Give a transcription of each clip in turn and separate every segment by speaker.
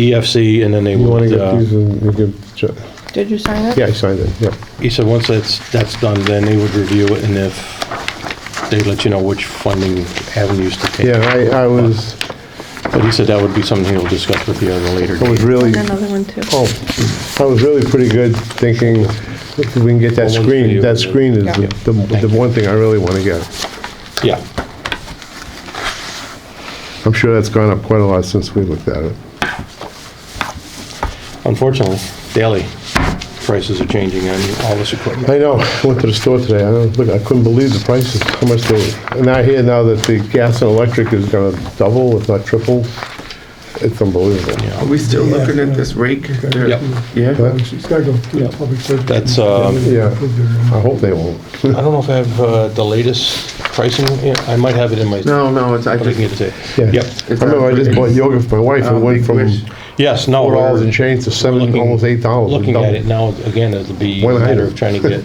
Speaker 1: EFC, E and then they
Speaker 2: You want to
Speaker 1: would,
Speaker 2: get
Speaker 1: uh,
Speaker 2: these and you give, Jo-
Speaker 3: Did you sign it?
Speaker 2: yeah, I signed it, yeah.
Speaker 1: he said, once that's, that's done, then they would review it, and if, they'd let you know which funding avenues to take.
Speaker 2: Yeah, I, I was,
Speaker 1: But he said that would be something he'll discuss with you at a later
Speaker 2: I was
Speaker 1: date.
Speaker 2: really,
Speaker 3: Another one too.
Speaker 2: oh, I was really pretty good thinking, if we can get that
Speaker 1: Well, one's for you,
Speaker 2: screen, that
Speaker 1: and-
Speaker 2: screen is
Speaker 3: Yeah.
Speaker 2: the, the the one thing I really want to get.
Speaker 1: Yeah,
Speaker 2: I'm sure that's gone up quite a lot since we looked at it.
Speaker 1: unfortunately, daily prices are changing on all this equipment.
Speaker 2: I know, I went to the store today, I don't, look, I couldn't believe the prices, how much they, and I hear now that the gas and electric is gonna double, if not triple. It's unbelievable.
Speaker 1: Yeah.
Speaker 4: Are we still looking at this rake?
Speaker 1: Yep.
Speaker 4: Yeah?
Speaker 5: It's gotta go through the public service.
Speaker 1: That's, um,
Speaker 2: Yeah, I hope they won't.
Speaker 1: I don't know if I have uh, the latest pricing, Yeah, I might have it in my,
Speaker 4: No, no, it's, I
Speaker 1: but I can
Speaker 4: think
Speaker 1: get it to
Speaker 2: Yeah.
Speaker 1: you. Yep,
Speaker 2: I remember I just bought yoga for my wife,
Speaker 4: Uh,
Speaker 2: and went
Speaker 4: Big
Speaker 2: from
Speaker 4: Wish.
Speaker 1: yes, no.
Speaker 2: four dollars
Speaker 1: we're-
Speaker 2: and change to seven,
Speaker 1: looking-
Speaker 2: almost eight dollars.
Speaker 1: Looking at it now, again, it'll be a
Speaker 2: One
Speaker 1: matter
Speaker 2: item.
Speaker 1: of trying to get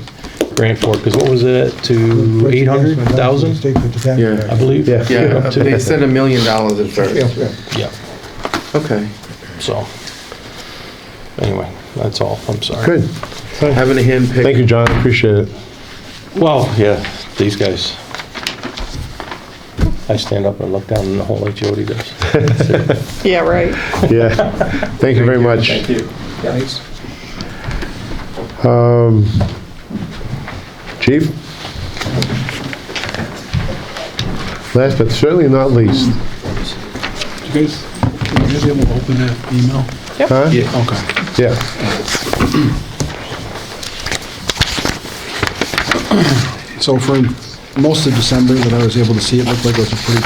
Speaker 1: grant for it, because what was it, to eight hundred thousand,
Speaker 5: State with the tax.
Speaker 4: Yeah.
Speaker 1: I believe?
Speaker 2: Yeah.
Speaker 4: Yeah,
Speaker 1: Up to-
Speaker 4: they said a million dollars at
Speaker 5: Yeah,
Speaker 4: first.
Speaker 5: yeah.
Speaker 1: Yeah,
Speaker 4: Okay.
Speaker 1: so, anyway, that's all, I'm sorry.
Speaker 2: Good,
Speaker 4: Having a
Speaker 2: thank
Speaker 4: handpick.
Speaker 2: you, John, appreciate it.
Speaker 1: Well, yeah, these guys. I stand up and look down in the hole like Jody does.
Speaker 3: Yeah, right.
Speaker 2: Yeah, thank you very much.
Speaker 1: you.
Speaker 2: Um, Chief? Last but certainly not least,
Speaker 6: You guys, you guys able to open that email?
Speaker 2: huh?
Speaker 6: Okay.
Speaker 2: Yeah.
Speaker 6: So for most of December that I was able to see, it looked like it was a pretty,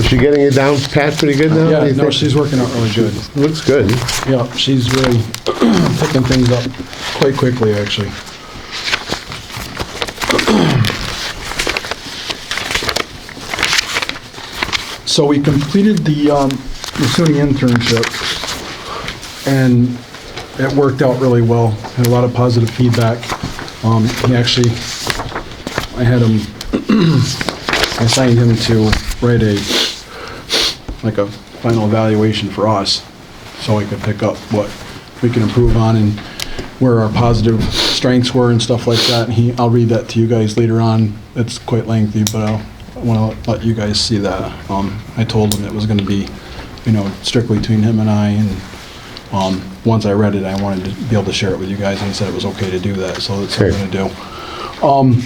Speaker 2: Is she getting it down, Pat, pretty good now? do
Speaker 6: yeah,
Speaker 2: you
Speaker 6: no,
Speaker 2: think?
Speaker 6: she's working out really good.
Speaker 2: Looks good.
Speaker 6: Yeah, she's really picking things up quite quickly, actually. So we completed the um, the SUNY internship, and it worked out really well. Had a lot of positive feedback. Um, He actually, I had him, I assigned him to write a, like a final evaluation for us, so I could pick up what we can improve on and where our positive strengths were and stuff like that. And he, I'll read that to you guys later on. It's quite lengthy, but I'll, I want to let you guys see that. Um, I told him it was going to be, you know, strictly between him and I, and um, once I read it, I wanted to be able to share it with you guys, and he said it was okay to do that, so that's what I'm gonna do. Um,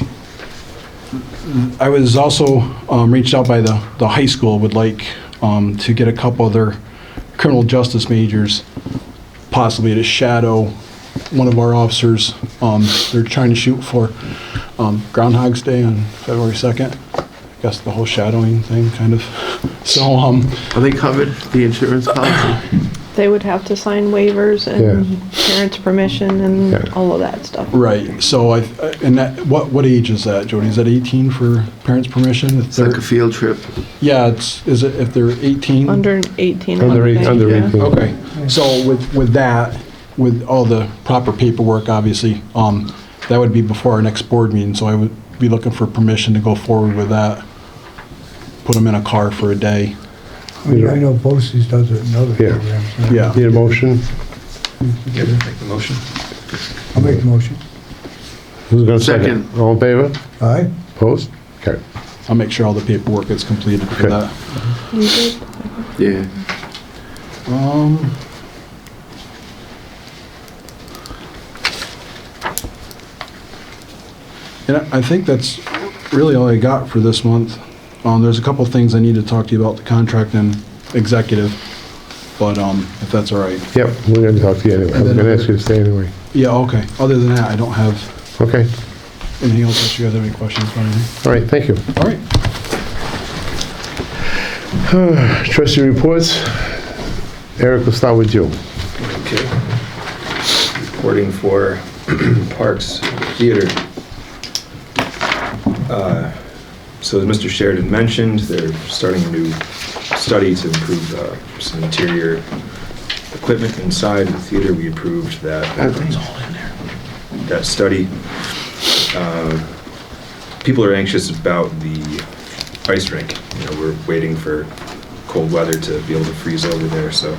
Speaker 6: I was also um, reached out by the, the high school, would like um, to get a couple other criminal justice majors possibly to shadow one of our officers. Um, They're trying to shoot for um, Groundhog's Day on February 2nd. I guess the whole shadowing thing, kind of. So, um,
Speaker 4: Are they covered, the insurance policy?
Speaker 3: They would have to sign waivers
Speaker 2: Yeah.
Speaker 3: and parents' permission and
Speaker 2: Yeah.
Speaker 3: all of that stuff.
Speaker 6: Right, so I, and that, what, what age is that, Jody? Is that 18 for parents' permission? If
Speaker 4: It's like a
Speaker 6: they're-
Speaker 4: field trip.
Speaker 6: Yeah, it's, is it, if they're 18?
Speaker 3: Under 18. I
Speaker 2: Under eight,
Speaker 3: think,
Speaker 2: under
Speaker 3: yeah.
Speaker 2: eighteen.
Speaker 6: Okay, so with, with that, with all the proper paperwork, obviously, um, that would be before our next board meeting, so I would be looking for permission to go forward with that. Put them in a car for a day.
Speaker 5: I mean, I know BOSI's does it in other
Speaker 2: Yeah.
Speaker 5: programs.
Speaker 6: Yeah.
Speaker 2: Need a motion?
Speaker 5: I'll make the motion.
Speaker 2: Who's gonna second?
Speaker 4: Second.
Speaker 2: All in favor?
Speaker 5: All right?
Speaker 2: Opposed? Okay.
Speaker 6: I'll make sure all the paperwork is completed for
Speaker 2: Okay.
Speaker 6: that.
Speaker 3: You did?
Speaker 4: Yeah.
Speaker 6: Um. And I I think that's really all I got for this month. Um, there's a couple things I need to talk to you about, the contract and executive, but, um, if that's all right.
Speaker 2: Yep, we're gonna talk to you anyway. I was gonna ask you to stay anyway.
Speaker 6: Yeah, okay. Other than that, I don't have
Speaker 2: Okay,
Speaker 6: anything else. If you guys have any questions or anything.
Speaker 2: all right, thank you.
Speaker 6: All right.
Speaker 2: Trustee reports. Eric, we'll start with you.
Speaker 7: Okay. Reporting for Parks Theater. Uh, So as Mr. Sheridan mentioned, they're starting a new study to improve uh, some interior equipment inside the theater. We approved that. That study. Uh, People are anxious about the ice rink. You know, we're waiting for cold weather to be able to freeze over there, so